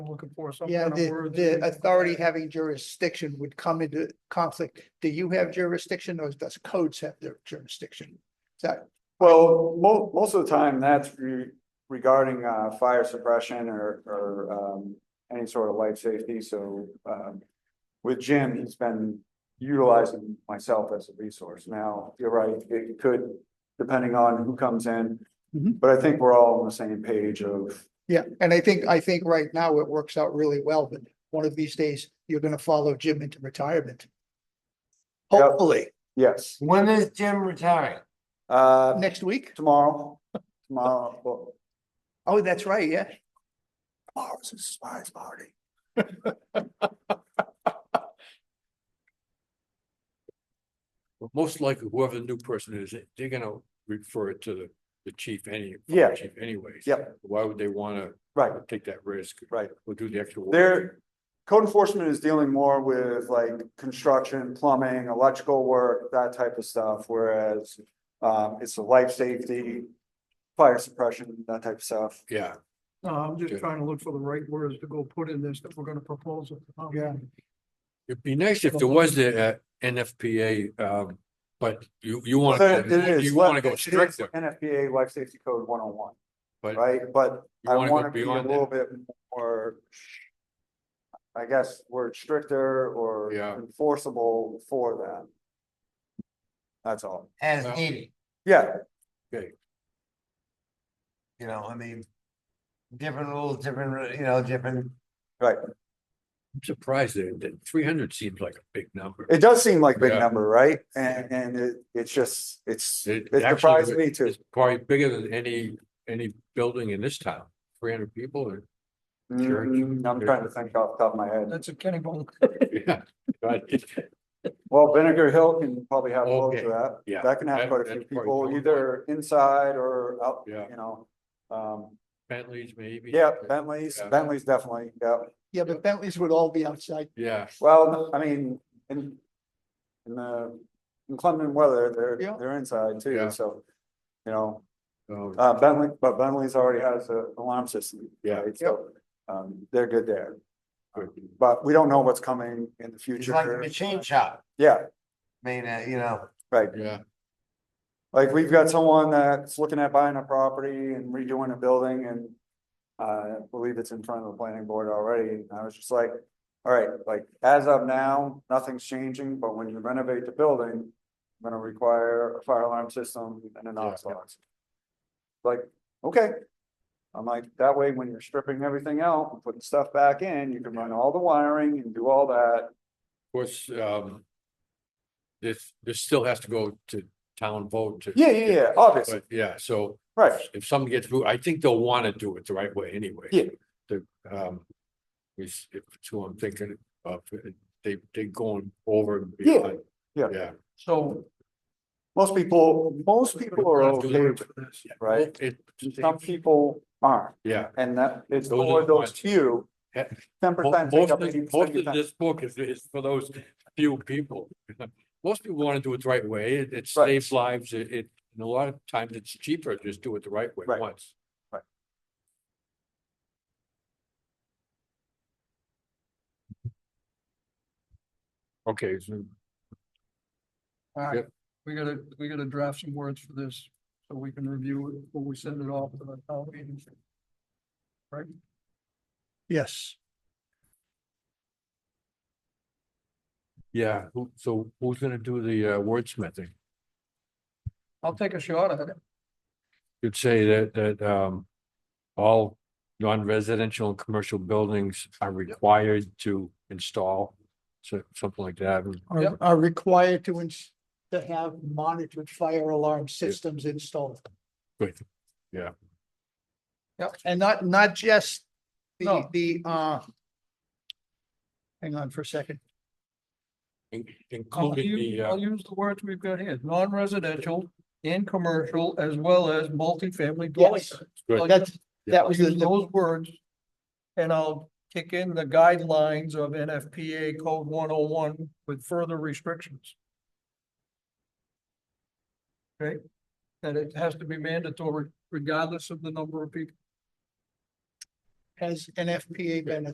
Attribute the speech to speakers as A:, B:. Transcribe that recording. A: looking for some
B: Yeah,
A: kind of
B: the,
A: word. that
B: the
A: we-
B: authority having jurisdiction would come into conflict. Do you have jurisdiction or does codes have their jurisdiction? Is that,
C: Well, mo- most of the time, that's re- regarding uh fire suppression or or um any sort of life safety, so um. With Jim, he's been utilizing myself as a resource. Now, you're right, it could, depending on who comes in.
B: Mhm.
C: But I think we're all on the same page of,
B: yeah, and I think, I think right now it works out really well, but one of these days you're gonna follow Jim into retirement.
C: Yep.
B: Hopefully,
C: yes,
D: When is Jim retiring?
C: uh,
B: next week.
C: tomorrow, tomorrow, well,
B: Oh, that's right, yeah.
C: tomorrow's his spies party.
E: Most likely whoever the new person is, they're gonna refer it to the, the chief any.
C: Yeah.
E: fire Chief anyways.
C: Yep.
E: Why would they wanna
C: Right,
E: take that risk?
C: Right.
E: Or do the extra work?
C: Their code enforcement is dealing more with like construction, plumbing, electrical work, that type of stuff, whereas um, it's the life safety, fire suppression, that type of stuff.
E: Yeah,
A: No, I'm
E: Yeah.
A: just trying to look for the right words to go put in this that we're gonna propose. it. Um,
B: Yeah.
E: it'd be nice if there was the uh, NFPA, um, but you, you wanna,
C: But it is
E: you wanna
C: life-
E: go
C: it is
E: stricter,
C: NFPA Life Safety Code one oh one,
E: but
C: right? But
E: you
C: I
E: wanna
C: wanna
E: go
C: be a
E: beyond that.
C: little bit more I guess word stricter or
E: Yeah.
C: enforceable for that. That's all.
D: As
E: Well-
D: needed,
C: Yeah,
D: you know, I mean. Different rules, different, re- you know, different,
C: right.
E: I'm surprised that, that three hundred seems like a big number.
C: It does seem like a big
E: Yeah.
C: number, right? And, and it, it's just, it's,
E: It
C: it
E: actually
C: surprised
E: is-
C: me too.
E: It's probably bigger than any, any building in this town, three hundred people or, Sure.
C: Mm, I'm trying to think off the top of my head.
A: That's a Kenny Bone.
E: yeah. But it-
C: Well, Vinegar Hill can probably have close
E: Okay,
C: to
E: yeah.
C: that. That can have
E: That-
C: quite a few
E: that's probably
C: people,
E: close.
C: either inside or out, you
E: Yeah.
C: know. Um,
E: Bentley's maybe.
C: yeah, Bentley's,
E: Yeah.
C: Bentley's definitely, yeah.
B: Yeah, but Bentleys would all be outside.
E: Yeah,
C: Well, I mean, in, in the inclement weather, they're,
B: Yeah.
C: they're inside
E: Yeah.
C: too, so. You know,
E: so-
C: uh, Bentley, but Bentley's already has a alarm system.
E: Yeah.
C: right? So, um, they're good there.
E: Good.
C: But we don't know what's coming in the
D: it's like a
C: future.
D: machine shop,
C: Yeah,
D: I mean, uh, you know,
C: right.
E: yeah.
C: Like we've got someone that's looking at buying a property and redoing a building and uh, I believe it's in front of the planning board already. And I was just like, all right, like as of now, nothing's changing, but when you renovate the building, I'm gonna require a fire alarm system and a Knox
E: Yeah.
C: box. Like, okay. I'm like, that way, when you're stripping everything out and putting stuff back in, you can run all the wiring and do all that.
E: Of course, um. This, this still has to go to town vote to.
C: Yeah, yeah, yeah, obviously,
E: But yeah, so
C: right.
E: if something gets moved, I think they'll want to do it the right way anyway.
C: Yeah.
E: The, um, which, if it's who I'm thinking of, uh, they, they going over. and
C: Yeah,
E: beyond.
C: yeah.
E: Yeah.
A: So.
C: Most people, most people are
E: Don't have to
C: okay
E: learn
C: with it,
E: from this. Yeah.
C: right?
E: It,
C: Some people aren't,
E: yeah,
C: and that it's
E: Those are
C: for
E: the
C: those
E: ones.
C: few.
E: Yeah.
C: Ten
E: Mo-
C: percent
E: most
C: take up
E: of,
C: eighty
E: most of
C: percent.
E: this book is, is for those few people. Most people want to do it the right way, it, it
C: Right.
E: saves lives, it, it, and a lot of times it's cheaper, to just do it the right way
C: Right.
E: once.
C: Right.
E: Okay, so
A: All right,
E: Yep.
A: we gotta, we gotta draft some words for this so we can review it before we send it off to the town meeting. Right?
B: Yes.
E: Yeah, who, so who's gonna do the uh, wordsmithing?
A: I'll take a shot at it.
E: You'd say that, that, um, all non-residential and commercial buildings are required to install, so, something like that. and-
B: Are,
A: Yep.
B: are required to ins- to have monitored fire alarm systems installed.
E: Good. Yeah.
A: Yep.
B: And not, not just the,
A: No.
B: the, uh, hang on for a second.
E: in-
A: I'll
E: Including
A: use,
E: the,
A: I'll
E: uh,
A: use the words we've got here, non-residential and commercial as well as multifamily dwelling.
B: Yes,
A: units.
E: Good.
A: I'll
B: that's,
E: Yeah.
B: that
A: I'll
B: was the,
A: use
B: the-
A: Oh, those words. And I'll kick in the guidelines of NFPA code one oh one with further restrictions. Okay, that it has to be mandatory regardless of the number of people.
B: has NFPA been